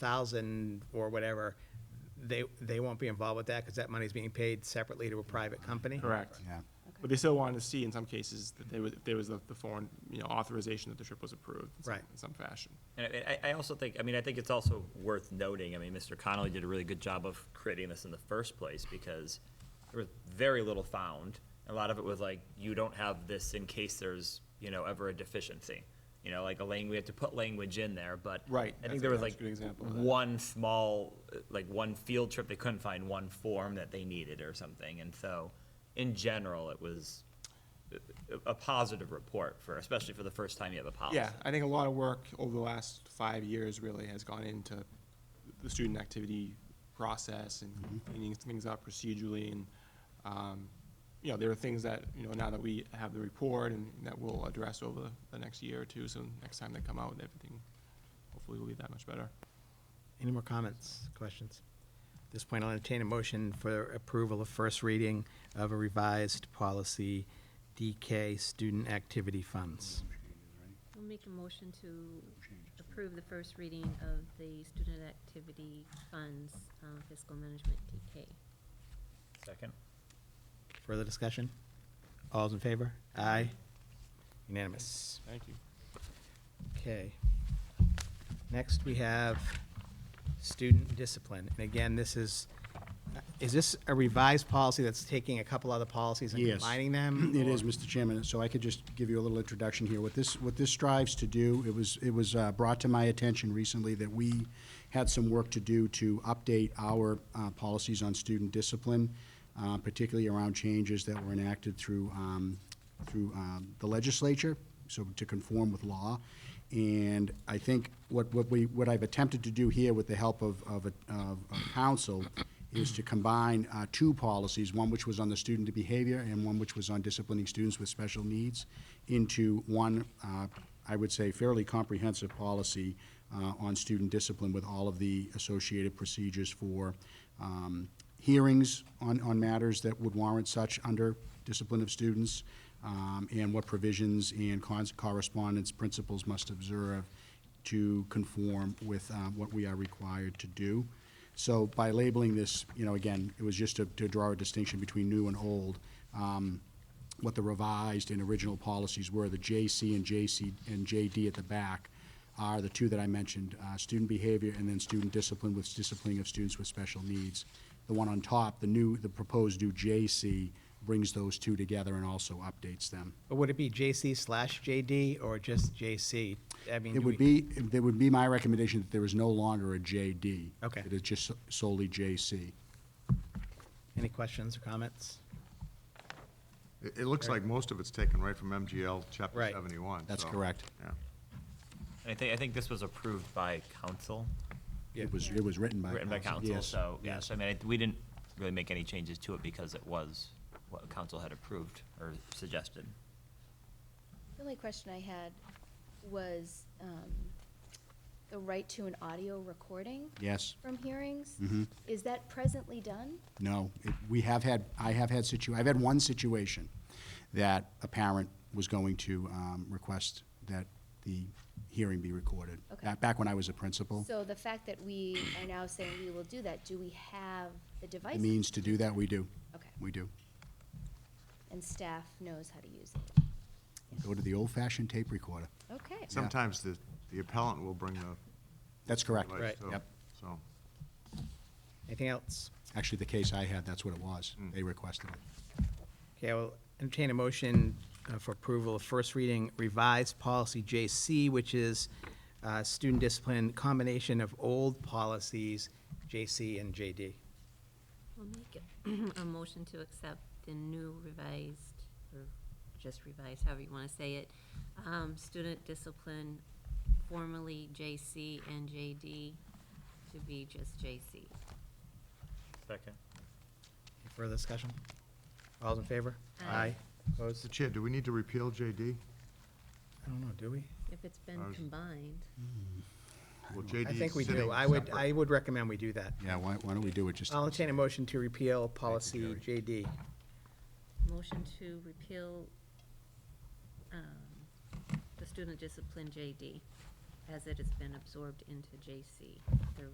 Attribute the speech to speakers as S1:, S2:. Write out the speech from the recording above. S1: thousand or whatever, they, they won't be involved with that because that money's being paid separately to a private company.
S2: Correct.
S3: Yeah.
S2: But they still wanted to see in some cases that there was, there was the the foreign, you know, authorization that the trip was approved in some-
S1: Right.
S2: in some fashion.
S4: And I, I I also think, I mean, I think it's also worth noting, I mean, Mr. Connolly did a really good job of creating this in the first place because there was very little found. A lot of it was like, you don't have this in case there's, you know, ever a deficiency. You know, like a lang, we have to put language in there, but.
S2: Right,
S4: I
S2: that's a-
S4: think there was
S2: that's a
S4: like
S2: good example of that.
S4: one small, uh, like one field trip, they couldn't find one form that they needed or something. And so, in general, it was a- a, a positive report for, especially for the first time you have a policy.
S2: Yeah, I think a lot of work over the last five years really has gone into the student activity process and cleaning things up procedurally and, um, you know, there are things that, you know, now that we have the report and that we'll address over the next year or two, so next time they come out, everything hopefully will be that much better.
S1: Any more comments, questions? At this point, I'll entertain a motion for approval of first reading of a revised policy, DK Student Activity Funds.
S5: I'll make a motion to approve the first reading of the Student Activity Funds uh, Fiscal Management DK.
S4: Second?
S1: Further discussion? All's in favor? Aye. Unanimous.
S2: Thank you.
S1: Okay. Next, we have student discipline. And again, this is, is this a revised policy that's taking a couple other policies and
S3: Yes.
S1: combining them?
S3: It is,
S1: or-
S3: Mr. Chairman, so I could just give you a little introduction here. What this, what this strives to do, it was, it was uh, brought to my attention recently that we had some work to do to update our uh, policies on student discipline, uh, particularly around changes that were enacted through, um, through um, the legislature, so to conform with law. And I think what, what we, what I've attempted to do here with the help of, of, a- of of counsel is to combine uh, two policies, one which was on the student behavior and one which was on disciplining students with special needs, into one, uh, I would say, fairly comprehensive policy uh, on student discipline with all of the associated procedures for um, hearings on, on matters that would warrant such under discipline of students, um, and what provisions and cons- correspondence principals must observe to conform with uh, what we are required to do. So by labeling this, you know, again, it was just to, to draw a distinction between new and old. Um, what the revised and original policies were, the JC and JC and JD at the back are the two that I mentioned, uh, student behavior and then student discipline with disciplining of students with special needs. The one on top, the new, the proposed new JC brings those two together and also updates them.
S1: But would it be JC slash JD or just JC? I mean,
S3: It
S1: do
S3: would
S1: we-
S3: be, it would be my recommendation that there is no longer a JD.
S1: Okay.
S3: It is just solely JC.
S1: Any questions or comments?
S6: It, it looks like most of it's taken right from MGL Chapter
S1: Right.
S6: 71.
S3: That's
S6: so,
S3: correct.
S6: Yeah.
S4: And I think, I think this was approved by council,
S3: It was, it was written by council.
S4: written by council,
S3: Yes,
S4: so,
S3: yes.
S4: yes, I mean, I- we didn't really make any changes to it because it was what council had approved or suggested.
S7: The only question I had was um, the right to an audio recording
S3: Yes.
S7: from hearings.
S3: Mhm.
S7: Is that presently done?
S3: No, it- we have had, I have had situ, I've had one situation that a parent was going to um, request that the hearing be recorded.
S7: Okay.
S3: Back- Back when I was a principal.
S7: So the fact that we are now saying we will do that, do we have the
S3: The
S7: device?
S3: means to do that, we do.
S7: Okay.
S3: We do.
S7: And staff knows how to use it?
S3: Go to the old-fashioned tape recorder.
S7: Okay.
S6: Sometimes the, the appellant will bring the.
S3: That's correct.
S6: device,
S1: Right.
S6: so-
S3: Yep.
S6: So,
S1: Anything else?
S3: Actually, the case I had, that's what it was.
S4: Mm.
S3: They requested it.
S1: Okay, I will entertain a motion uh, for approval of first reading revised policy JC, which is uh, student discipline, combination of old policies, JC and JD.
S5: I'll make a motion to accept the new revised, or just revised, however you want to say it, um, Student Discipline, formerly JC and JD, to be just JC.
S4: Second.
S1: Any Further discussion? All's in favor?
S5: Aye.
S1: Opposed?
S6: Mr. Chair, do we need to repeal JD?
S1: I don't know, do we?
S5: If it's been
S6: Ours-
S5: combined.
S6: Well, JD
S1: I think we
S6: is sitting
S1: do. I would,
S6: separate.
S1: I would recommend we do that.
S3: Yeah, why, why don't we do it just?
S1: I'll entertain a motion to repeal policy JD.
S5: Motion to repeal um, the student discipline JD as it has been absorbed into JC, the